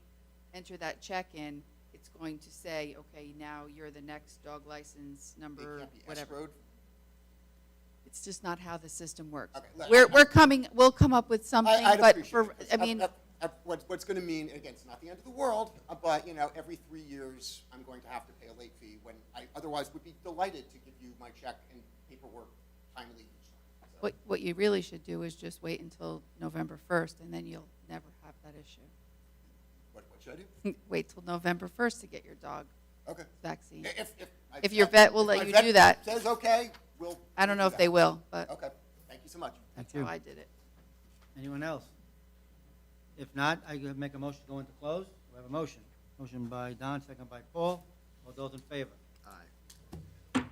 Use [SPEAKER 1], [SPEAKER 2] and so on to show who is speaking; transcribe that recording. [SPEAKER 1] enter that check in, it's going to say, okay, now you're the next dog license
[SPEAKER 2] It
[SPEAKER 1] number,
[SPEAKER 2] can't be
[SPEAKER 1] whatever.
[SPEAKER 2] escrowed?
[SPEAKER 1] It's just not how the system works.
[SPEAKER 2] Okay, look,
[SPEAKER 1] We're,
[SPEAKER 2] I-
[SPEAKER 1] we're coming, we'll come up with something,
[SPEAKER 2] I, I'd
[SPEAKER 1] but
[SPEAKER 2] appreciate it,
[SPEAKER 1] for,
[SPEAKER 2] 'cause
[SPEAKER 1] I
[SPEAKER 2] up-
[SPEAKER 1] mean,
[SPEAKER 2] up- up- what- what's going to mean, again, it's not the end of the world, uh, but, you know, every three years, I'm going to have to pay a late fee when I otherwise would be delighted to give you my check and paperwork timely each time. So,
[SPEAKER 1] what, what you really should do is just wait until November first, and then you'll never have that issue.
[SPEAKER 2] What, what should I do?
[SPEAKER 1] Wait till November first to get your dog
[SPEAKER 2] Okay.
[SPEAKER 1] vaccine.
[SPEAKER 2] If, if. my
[SPEAKER 1] If your vet will
[SPEAKER 2] if
[SPEAKER 1] let
[SPEAKER 2] my
[SPEAKER 1] you
[SPEAKER 2] vet
[SPEAKER 1] do that.
[SPEAKER 2] Says okay, we'll.
[SPEAKER 1] I don't
[SPEAKER 2] we'll
[SPEAKER 1] know
[SPEAKER 2] do
[SPEAKER 1] if they
[SPEAKER 2] that.
[SPEAKER 1] will, but
[SPEAKER 2] Okay, thank you so much.
[SPEAKER 1] that's
[SPEAKER 3] you.
[SPEAKER 1] how I did it.
[SPEAKER 3] Anyone else? If not, I could make a motion to go into close. We have a motion. Motion by Don, second by Paul. All those in favor?